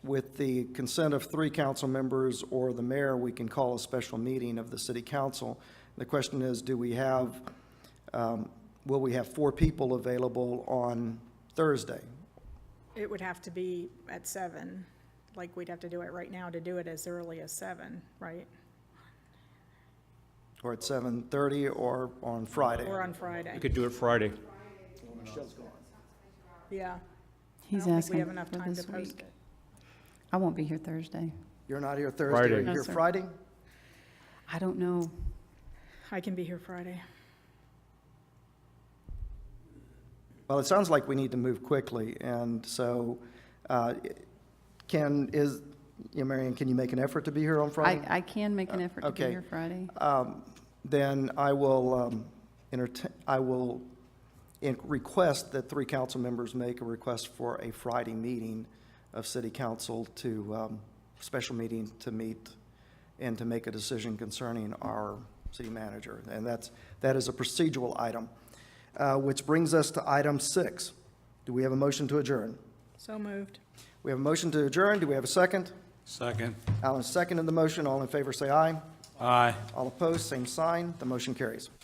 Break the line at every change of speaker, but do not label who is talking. with the consent of three council members or the mayor, we can call a special meeting of the city council. The question is, do we have, um, will we have four people available on Thursday?
It would have to be at seven, like we'd have to do it right now to do it as early as seven, right?
Or at 7:30 or on Friday?
Or on Friday,
We could do it Friday.
yeah.
He's
I don't think we
asking
have enough
for
time
this
to post
week.
it.
I won't be here Thursday.
You're not here Thursday,
Friday.
you're
No,
here
sir.
Friday?
I don't know.
I can be here Friday.
Well, it sounds like we need to move quickly, and so uh, can, is, you know, Marion, can you make an effort to be here on
I,
Friday? Uh,
I can make an effort to be
okay.
here Friday.
Um, Then I will um, entertain, I will in- request that three council members make a request for a Friday meeting of city council to, um, special meeting to meet and to make a decision concerning our city manager. And that's, that is a procedural item, Uh, which brings us to item six. Do we have a motion to adjourn?
So moved.
We have a motion to adjourn. Do we have a second?
Second.
Alan seconded the motion. All in favor, say aye.
Aye.
All opposed, same sign. The motion carries.